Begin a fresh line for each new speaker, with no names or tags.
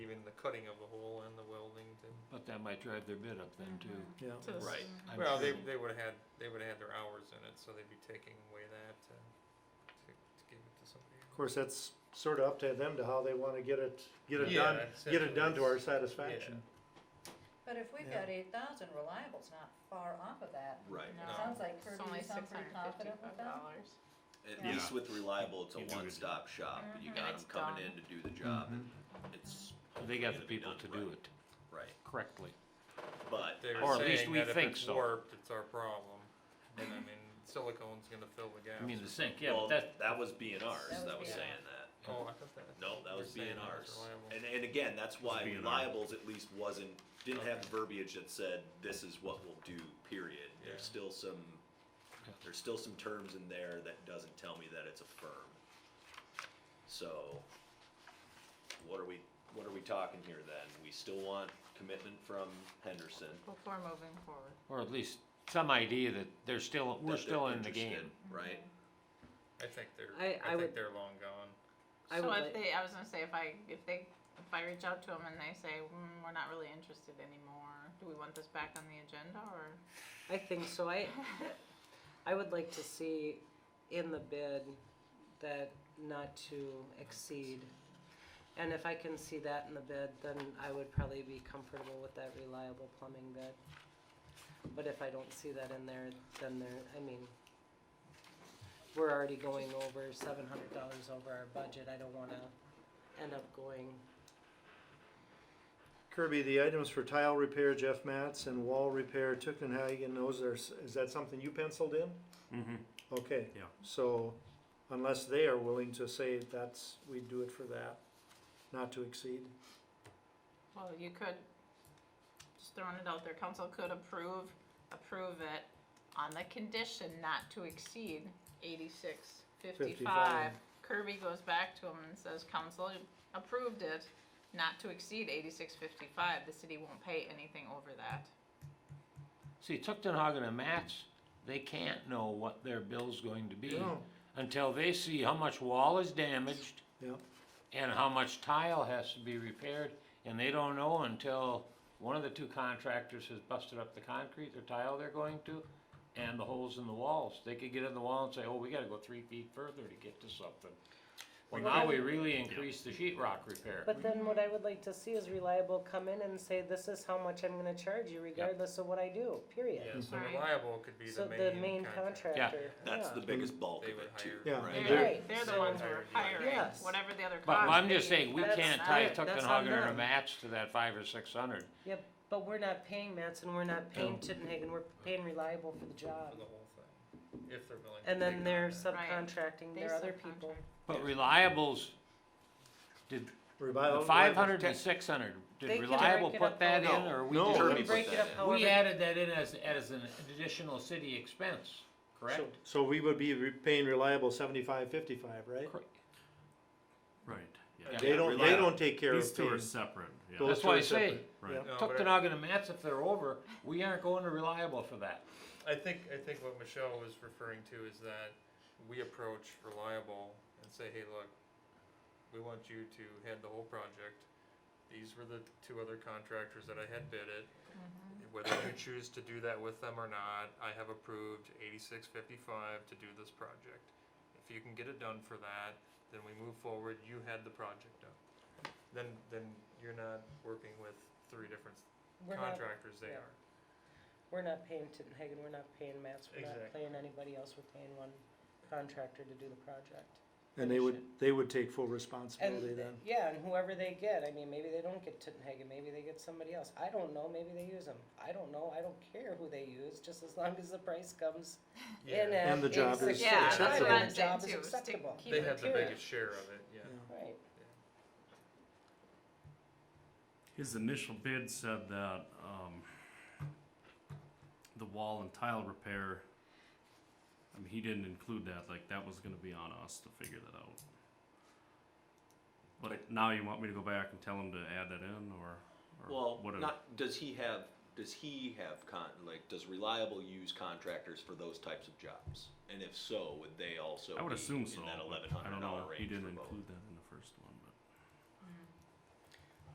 cutting of a hole and the welding to.
But that might drive their bid up then too.
Yeah.
To the
Right.
s-
I'm
Well, they,
sure.
they would've had, they would've had their hours in it, so they'd be taking away that to, to, to give it to somebody.
Of course, that's sort of up to them to how they want to get it, get it
Yeah,
done, get
essentially,
it done to our
it's-
satisfaction.
But if we've
Yeah.
got eight thousand, reliable's not far off of that.
Right.
It
No.
sounds like
It's
Kirby,
only
you sound
six
pretty
hundred
confident with
fifty-five
that.
dollars.
At
Yeah. Mm-hmm.
least with reliable, it's
You
a
do it.
one-stop shop. You
Mhm.
got
It's
them coming
done.
in to do the job, and it's
Mm-hmm. They got the
gonna be
people
done
to
right.
do it
right.
correctly.
But
They
Or
were
at least
saying
we
that if
think
it's
so.
warped, it's our problem. And I mean, silicone's gonna fill the gaps.
I mean, the sink, yeah,
well,
but that,
that, was being ours.
That was
that was
B&R.
saying that.
Oh, I thought that.
No, that
you
was
were saying that was
BNR's.
reliable.
And, and again, that's why
B&R.
reliables at least wasn't, didn't have the verbiage that said, this is what we'll do, period.
Yeah.
There's still some,
Yeah.
there's still some terms in there that doesn't tell me that it's a firm. So, what are we, what are we talking here then? We still want commitment from Henderson.
Before moving forward.
or at least some idea that they're still, we're
that they're
still in the
interested,
game.
Right?
I think they're,
I- I
I think
would-
they're long gone.
I
So
would
if
like-
they, I was gonna say, if I, if they, if I reach out to them and they say, mm, we're not really interested anymore, do we want this back on the agenda or?
I think so. I, I would like to see in the bid that not to exceed. And if I can see that in the bid, then I would probably be comfortable with that reliable plumbing bid. But if I don't see that in there, then there, I mean, we're already going over seven hundred dollars over our budget. I don't wanna end up going,
Kirby, the items for tile repair, Jeff Matz, and wall repair, Tuckenhagen, those are, s- is that something you penciled in?
Mm-hmm.
Okay.
Yeah.
So unless they are willing to say that's, we do it for that, not to exceed.
Well, you could, just throwing it out there, council could approve, approve it on the condition not to exceed eighty-six fifty-five.
55.
Kirby goes back to him and says, council approved it not to exceed eighty-six fifty-five, the city won't pay anything over that.
See, Tuchtenhagen and Matts, they can't know what their bill's going to be
No.
until they see how much wall is damaged
Yeah.
and how much tile has to be repaired, and they don't know until one of the two contractors has busted up the concrete or tile they're going to, and the holes in the walls. They could get in the wall and say, oh, we gotta go three feet further to get to something. Well, now we really increase the sheet rock repair.
But then what I would like to see is reliable come in and say, this is how much I'm gonna charge you regardless of what I do, period.
Yeah, so
Right.
reliable could be
So
the
the
main
main
contractor.
contractor,
That's the
yeah.
biggest bulk
They
of
would
it too,
hire-
Yeah.
right?
And
They're,
Right,
they're the
so-
ones who are hiring,
Yes.
whatever the other cost.
But I'm just
is,
saying, we
that's
can't
not-
tie
it. That's on
Tuckenhagen or
them.
Matts to that five or six hundred.
Yep, but we're not paying Matson, we're not paying Tittenhagen, we're paying Reliable for the
For
job.
the whole thing, if they're willing. to
And
take
then
on
they're
that.
subcontracting
They
their other people.
subcontract.
But Reliable's, did, the
Revival-
five hundred and six hundred,
They
did
can
Reliable
break it
put
up
that in,
however-
or we
No.
just?
Kirby
We
Kirby
can
put
break it
that
up
Oh,
in.
however.
We added that in as, as an additional city expense, correct?
So- So we would be re- paying reliable seventy-five, fifty-five, right?
Cor-
Right.
Yeah.
Yeah.
They don't, they
Reliable.
don't take care
These
of
two are
paying.
separate. Yeah.
Those
That's
two
why
are
I say,
separate.
right.
yeah.
No, but I-
Tuckenhagen and Matts, if they're over, we aren't going to Reliable for that.
I think, I think what Michelle was referring to is that we approach Reliable and say, hey, look, we want you to head the whole project. These were the two other contractors that I had bid it.
Mm-hmm.
Whether you choose to do that with them or not, I have approved eighty-six fifty-five to do this project. If you can get it done for that, then we move forward, you head the project up. Then, then you're not working with three different
We're not,
contractors, they
yeah.
are.
we're not paying Tittenhagen, we're not paying Matson, we're
Exactly.
not paying anybody else, we're paying one contractor to do the project.
And they would, they would take full responsibility
And,
then.
yeah, and whoever they get, I mean, maybe they don't get Tittenhagen, maybe they get somebody else. I don't know, maybe they use them. I don't know, I don't care who they use, just as long as the price comes in
Yeah.
at
And the job is
$86,
Yeah, that's what
acceptable.
I'm
the job
saying
is
too, is to
acceptable.
keep
They
it
had the
period.
biggest share of it, yeah.
Yeah.
Right.
His initial bid said that um, the wall and tile repair. I mean, he didn't include that. Like that was going to be on us to figure that out. But now you want me to go back and tell him to add that in, or, or
Well,
what? a-
not, does he have, does he have con, like, does Reliable use contractors for those types of jobs? And if so, would they also
I would
be
assume so.
in that
but
eleven hundred
I don't know.
dollar range
He didn't
for both?
include that.